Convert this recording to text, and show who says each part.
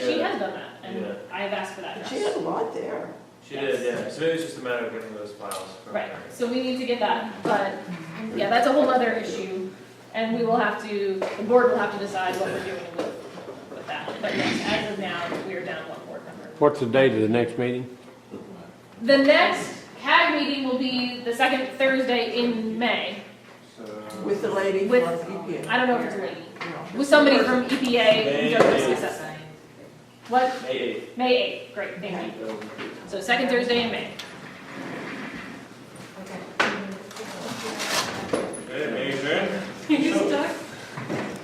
Speaker 1: done that, and I've asked for that
Speaker 2: But
Speaker 1: draft.
Speaker 2: she had a lot there.
Speaker 3: She did, yeah, so maybe it's just a matter of getting those files from
Speaker 1: Right,
Speaker 3: her.
Speaker 1: so we need to get that, but, yeah, that's a whole other issue, and we will have to, the board will have to decide what we're doing with, with that. But yes, as of now, we are down one board member.
Speaker 4: What's the date of the next meeting?
Speaker 1: The next CAG meeting will be the second Thursday in May.
Speaker 3: So.
Speaker 2: With the lady from
Speaker 1: With-
Speaker 2: EPA.
Speaker 1: I don't know if it's a lady,
Speaker 2: No.
Speaker 1: with somebody from E EPA,
Speaker 3: May
Speaker 1: who does
Speaker 3: eighth.
Speaker 1: assessment. What,
Speaker 3: May eighth.
Speaker 1: May eighth, great, thank you. So second Thursday in May.